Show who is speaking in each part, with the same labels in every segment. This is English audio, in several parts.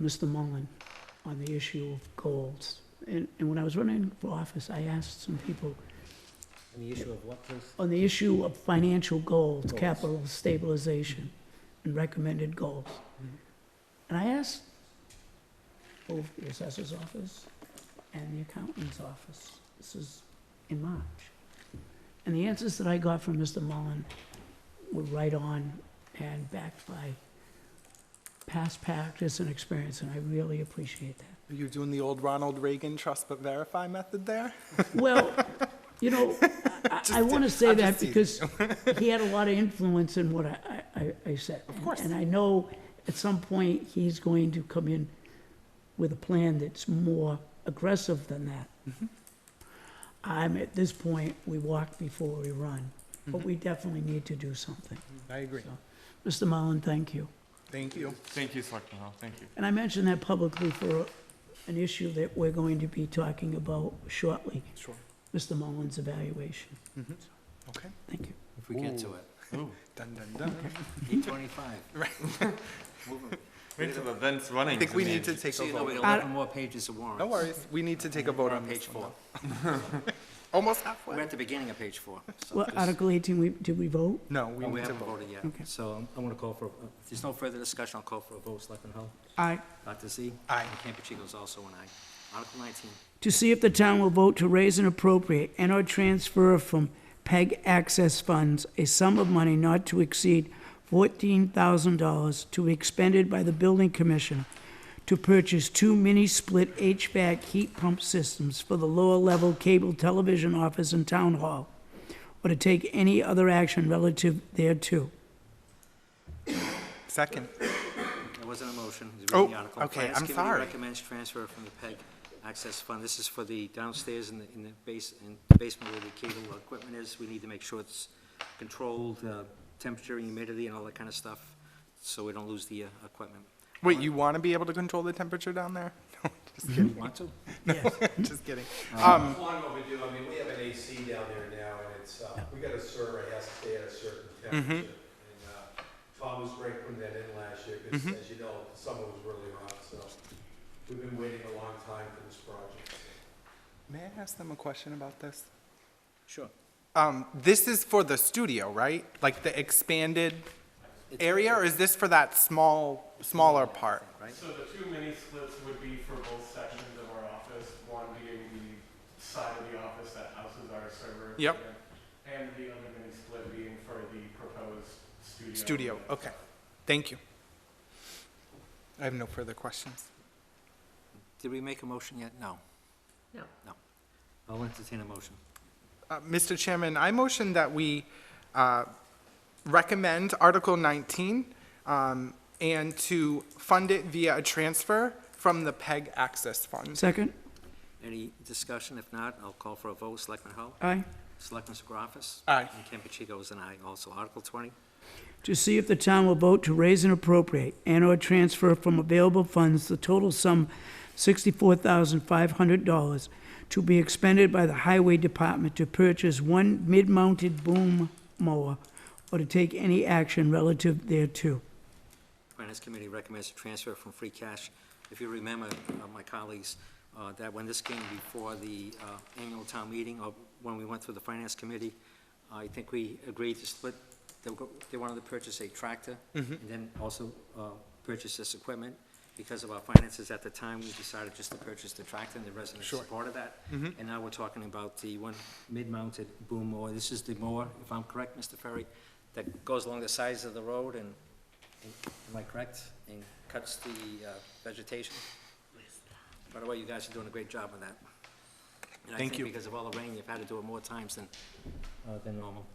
Speaker 1: Mr. Mullen on the issue of goals. And, and when I was running for office, I asked some people
Speaker 2: And the issue of what, please?
Speaker 1: on the issue of financial goals,
Speaker 2: Goals.
Speaker 1: capital stabilization, and recommended goals. And I asked both the assessor's office and the accountant's office, this is in March. And the answers that I got from Mr. Mullen were right on and backed by past practice and experience, and I really appreciate that.
Speaker 3: Are you doing the old Ronald Reagan trust but verify method there?
Speaker 1: Well, you know, I, I want to say
Speaker 3: I'm
Speaker 1: that
Speaker 3: just
Speaker 1: because he had a lot of influence in what I, I, I said. Of
Speaker 3: course.
Speaker 1: And I know at some point he's going to come in with a plan that's more aggressive than that.
Speaker 3: Mm-hmm.
Speaker 1: I'm, at this point, we walk before we run, but
Speaker 3: Mm-hmm.
Speaker 1: we definitely need to do something.
Speaker 3: I agree.
Speaker 1: Mr. Mullen, thank you.
Speaker 3: Thank you.
Speaker 4: Thank you, Selectman Hull, thank you.
Speaker 1: And I mentioned that publicly for an issue that we're going to be talking about shortly,
Speaker 3: Sure.
Speaker 1: Mr. Mullen's evaluation.
Speaker 3: Okay.
Speaker 1: Thank you.
Speaker 2: If we get to it.
Speaker 3: Dun, dun, dun.
Speaker 2: Eight twenty-five. Moving.
Speaker 4: Wait till the vent's running.
Speaker 3: I think we need to take
Speaker 2: So
Speaker 3: a
Speaker 2: you know, we
Speaker 3: vote.
Speaker 2: have eleven more pages of warrants.
Speaker 3: No worries. We need to take a vote
Speaker 2: We're
Speaker 3: on
Speaker 2: on
Speaker 3: this
Speaker 2: page
Speaker 3: one.
Speaker 2: four.
Speaker 3: Almost
Speaker 2: We're
Speaker 3: halfway.
Speaker 2: at the beginning of page four. so
Speaker 1: Well,
Speaker 2: just-
Speaker 1: Article 18, we, did we vote?
Speaker 3: No, we
Speaker 2: Oh, We
Speaker 3: need to
Speaker 2: haven't
Speaker 3: vote.
Speaker 2: voted
Speaker 1: Okay.
Speaker 2: yet. So I'm- I'm gonna call for, uh, if there's no further discussion, I'll call for a vote. Selectman Hull?
Speaker 1: Aye.
Speaker 2: Dr. Z?
Speaker 3: Aye.
Speaker 2: And Campuchico is also an aye. Article nineteen.
Speaker 1: To see if the town will vote to raise and appropriate and/or transfer from PEG access funds a sum of money not to exceed $14,000 to be expended by the building commissioner to purchase two mini-split HVAC heat pump systems for the lower-level cable television office and town hall, or to take any other action relative thereto.
Speaker 3: Second.
Speaker 2: There wasn't a motion. It's
Speaker 3: Oh,
Speaker 2: reading the article.
Speaker 3: okay, I'm
Speaker 2: Finance
Speaker 3: sorry.
Speaker 2: Committee recommends transfer from the PEG Access Fund. This is for the downstairs in the, in the base, in the basement where the cable equipment is. We need to make sure it's controlled, uh, temperature, humidity, and all that kind of stuff, so we don't lose the, uh, equipment.
Speaker 3: Wait, you want to be able to control the temperature down there? No, just
Speaker 2: Do you
Speaker 3: kidding.
Speaker 2: want to?
Speaker 1: Yes.
Speaker 3: Just kidding.
Speaker 5: It's long overdue, I mean, we have an AC down there now, and it's, uh, we got a server, it has to stay at a certain temperature. And, uh, Tom was great putting that in last year, because as you know, the summer was really hot, so we've been waiting a long time for this project.
Speaker 3: May I ask them a question about this?
Speaker 2: Sure.
Speaker 3: Um, this is for the studio, right? Like the expanded area, or is this for that small, smaller part?
Speaker 2: Right?
Speaker 6: So the two mini splits would be for both sections of our office, one being the side of the office that houses our server.
Speaker 3: Yep.
Speaker 6: equipment, And the other mini split being for the proposed studio.
Speaker 3: Studio, okay. Thank you. I have no further questions.
Speaker 2: Did we make a motion yet? No. No. No. I'll entertain a motion.
Speaker 3: Uh, Mr. Chairman, I motion that we uh, recommend Article 19 um, and to fund it via a transfer from the PEG Access Fund.
Speaker 1: Second?
Speaker 2: Any discussion? If not, I'll call for a vote. Selectman Hull?
Speaker 1: Aye.
Speaker 2: Selectman Segravas?
Speaker 3: Aye.
Speaker 2: And Campuchico is an aye also. Article twenty.
Speaker 1: to see if the town will vote to raise and appropriate and/or transfer from available funds the total sum $64,500 to be expended by the Highway Department to purchase one mid-mounted boom mower or to take any action relative thereto.
Speaker 2: Finance Committee recommends a transfer from free cash. If you remember, uh, my colleagues, uh, that when this came before the uh, annual town meeting, or when we went through the Finance Committee, I think we agreed to split, they were- they wanted to purchase a tractor, and then also uh, purchase this equipment. Because of our finances at the time, we decided just to purchase the tractor, and the residents supported that. And now we're talking about the one mid-mounted boom mower. This is the mower, if I'm correct, Mr. Ferry, that goes along the sides of the road and Am I correct? And cuts the uh, vegetation? By the way, you guys are doing a great job on that.
Speaker 3: Thank
Speaker 2: And I
Speaker 3: you.
Speaker 2: think because of all the rain, you've had to do it more times than, uh, than normal.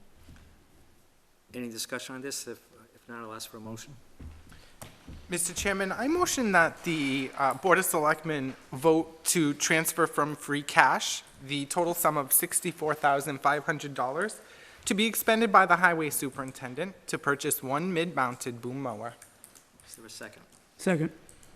Speaker 2: Any discussion on this? If, if not, I'll ask for a motion.
Speaker 3: Mr. Chairman, I motion that the uh, Board of Selectmen vote to transfer from free cash the total sum of $64,500 to be expended by the Highway Superintendent to purchase one mid-mounted boom mower.
Speaker 2: Is there a second?
Speaker 1: Second.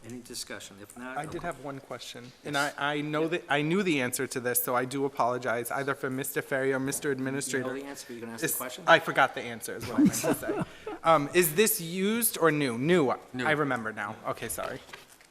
Speaker 2: Any discussion? If not.
Speaker 3: I
Speaker 2: I'll
Speaker 3: did
Speaker 2: call-
Speaker 3: have one question, and I, I know that, I knew the answer to this, so I do apologize, either for Mr. Ferry or Mr.
Speaker 2: You know
Speaker 3: Administrator.
Speaker 2: the answer, but you're going to ask
Speaker 3: Is-
Speaker 2: the question?
Speaker 3: I forgot the answer, is what I meant to say. Um, is this used or new? New, I remember now, okay, sorry.